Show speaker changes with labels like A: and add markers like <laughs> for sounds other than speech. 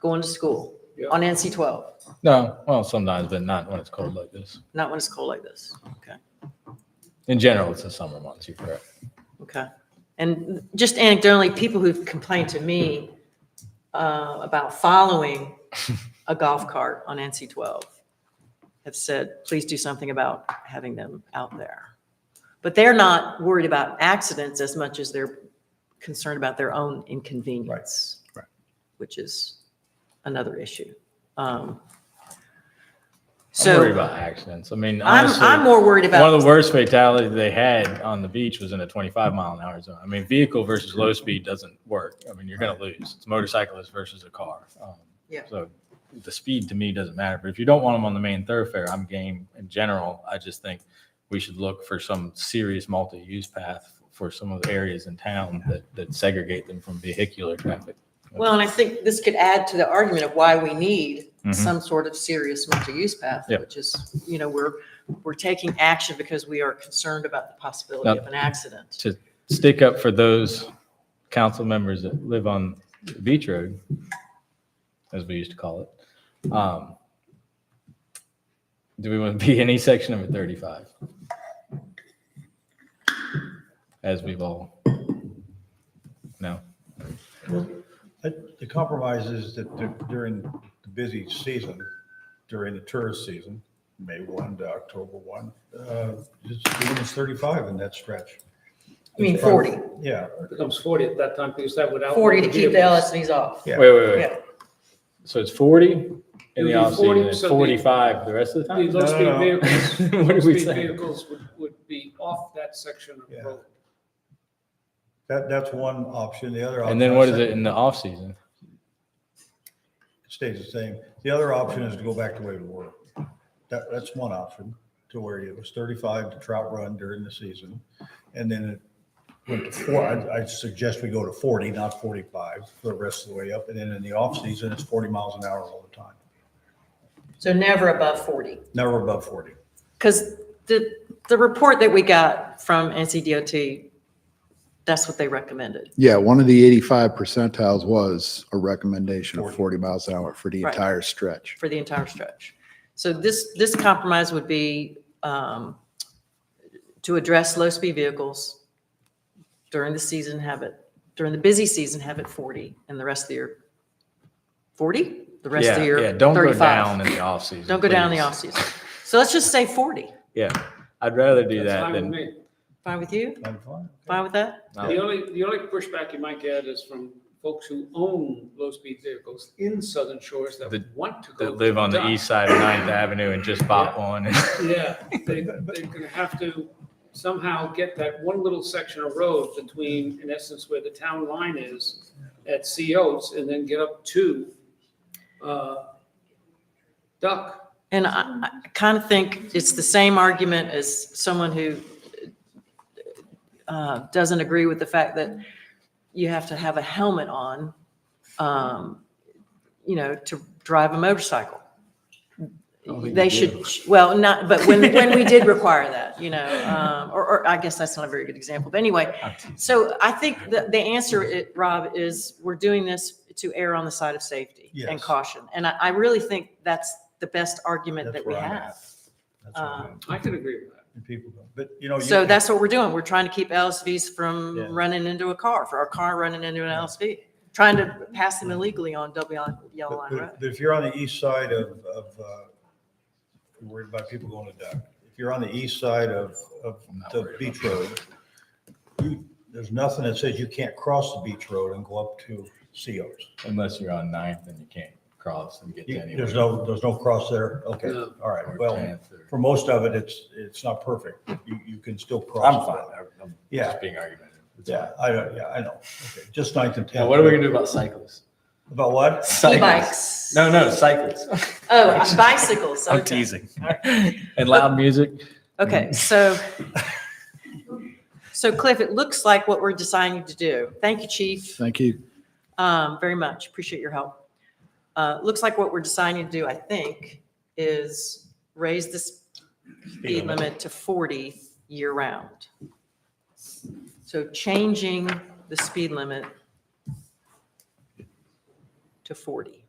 A: going to school
B: Yeah.
A: on NC 12,
C: No, well, sometimes, but not when it's cold like this.
A: not when it's cold like this. Okay,
C: In general, it's the summer months, you're correct.
A: okay. And just anecdotally, people who've complained to me uh, about
C: <laughs>
A: following a golf cart on NC 12 have said, please do something about having them out there. But they're not worried about accidents as much as they're concerned about their own inconvenience,
C: right.
A: which is another issue. Um,
C: I'm worried
A: So
C: about accidents. I mean,
A: I'm,
C: honestly,
A: I'm more worried
C: one of
A: about,
C: the worst fatalities they had on the beach was in a 25 mile an hour zone. I mean, vehicle versus low speed doesn't work. I mean, you're going to lose. It's motorcyclist versus a car. Um,
A: Yeah.
C: So the speed to me doesn't matter. But if you don't want them on the main thoroughfare, I'm game in general. I just think we should look for some serious multi-use path for some of the areas in town that, that segregate them from vehicular traffic.
A: well, and I think this could add to the argument of why we need
C: Mhm.
A: some sort of serious multi-use path,
C: Yeah.
A: which is, you know, we're, we're taking action because we are concerned about the possibility
C: Now-
A: of an accident.
C: to stick up for those council members that live on the beach road, as we used to call it. Um, Do we want to be any section number 35? As we've all, no,
D: The compromise is that dur- during the busy season, during the tourist season, May 1 to October 1, uh, it's it's 35 in that stretch.
A: I mean, 40,
D: Yeah,
B: becomes 40 at that time because that would. outlaw
A: 40 to keep the
B: vehicles.
A: LSVs off.
D: Yeah.
C: wait, wait,
A: Yeah.
C: wait. So it's 40 in the
B: It would be 40,
C: offseason and
B: so the-
C: 45 the rest of the
B: The
C: time?
D: No, no,
B: low-speed
D: no. <laughs>
B: vehicles,
C: What are we
B: low-speed
C: saying?
B: vehicles would, would be off that section
D: Yeah.
B: of road.
D: that, that's one option. The other.
C: And then
D: option, I
C: what is
D: said,
C: it in the offseason?
D: Stays the same. The other option is to go back to way we were. That, that's one option to where it was 35 to trout run during the season. And then it went to four, I, I suggest we go to 40, not 45, the rest of the way up. And then in the off season, it's 40 miles an hour all the time.
A: So never above 40.
D: Never above 40.
A: Because the, the report that we got from NCDOT, that's what they recommended.
E: Yeah, one of the 85 percentiles was a recommendation of 40 miles an hour for the
A: Right.
E: entire stretch.
A: for the entire stretch. So this, this compromise would be um, to address low-speed vehicles during the season, have it, during the busy season, have it 40, and the rest of the year, 40? The rest of
C: Yeah,
A: the year,
C: yeah, don't go
A: 35.
C: down in the offseason.
A: Don't go down in the
C: please.
A: off-season. So let's just say 40.
C: Yeah, I'd rather do
B: That's
C: that
B: fine with
C: than,
B: me.
A: Fine with you?
D: Kind of fun.
A: Fine with that?
C: no.
B: The only, the only pushback you might get is from folks who own low-speed vehicles in Southern Shores that
C: That-
B: want to go.
C: that
B: to
C: live on the
B: dock.
C: east side of Ninth Avenue and just bought one. <laughs>
D: <laughs>
B: Yeah, they, they're gonna have to somehow get that one little section of road between, in essence, where the town line is at Sea Oats and then get up to, uh, Duck.
A: And I, I kind of think it's the same argument as someone who uh, doesn't agree with the fact that you have to have a helmet on, um, you know, to drive a motorcycle. They should, well, not, but when, when we did require that, you know, um, or, or I guess that's not a very good example, but anyway. So I think the, the answer, it- Rob, is we're doing this to err on the side of safety and
D: Yes.
A: caution. And I, I really think that's the best argument
D: That's
A: that we
D: where I'm at.
A: have.
D: That's where I'm
A: Um,
D: at.
B: I can agree with that.
D: And people don't, but you know.
C: Oh,
D: you
A: So
D: can-
A: that's what we're doing. We're trying to keep LSVs from
D: Yeah.
A: running into a car, for our car running into an
D: Yeah.
A: LSV, trying to pass them illegally on double yellow- yellow
D: But
A: line road.
D: but- but if you're on the east side of, of, uh, you're worried about people going to dock. If you're on the east side of, of
C: I'm not
D: the
C: worried
D: beach road, you, there's nothing that says you can't cross the beach road and go up to COs.
C: Unless you're on Ninth and you can't cross and get to
D: You-
C: anywhere.
D: There's no, there's no cross there. Okay,
B: No.
D: all
C: Or
D: right. Well,
C: 10th
D: for
C: or-
D: most of it, it's, it's not perfect. You, you can still cross.
C: I'm fine. I'm- I'm
D: Yeah.
C: Just being argumentative. It's
D: Yeah,
C: fine.
D: I, don't- yeah, I know. Okay, Just ninth and tenth.
C: Now, what are we gonna do about cyclists?
D: About what?
C: Cyclists.
A: E-bikes.
C: No, no, cyclists.
A: <laughs> Oh, uh, bicycles.
C: I'm
A: okay.
C: teasing. And loud music.
A: Okay, so,
C: <laughs>
A: so Cliff, it looks like what we're deciding to do. Thank you, chief.
E: Thank you.
A: Um, very much, appreciate your help. Uh, looks like what we're deciding to do, I think, is raise the speed limit to forty year-round. So changing the speed limit to forty.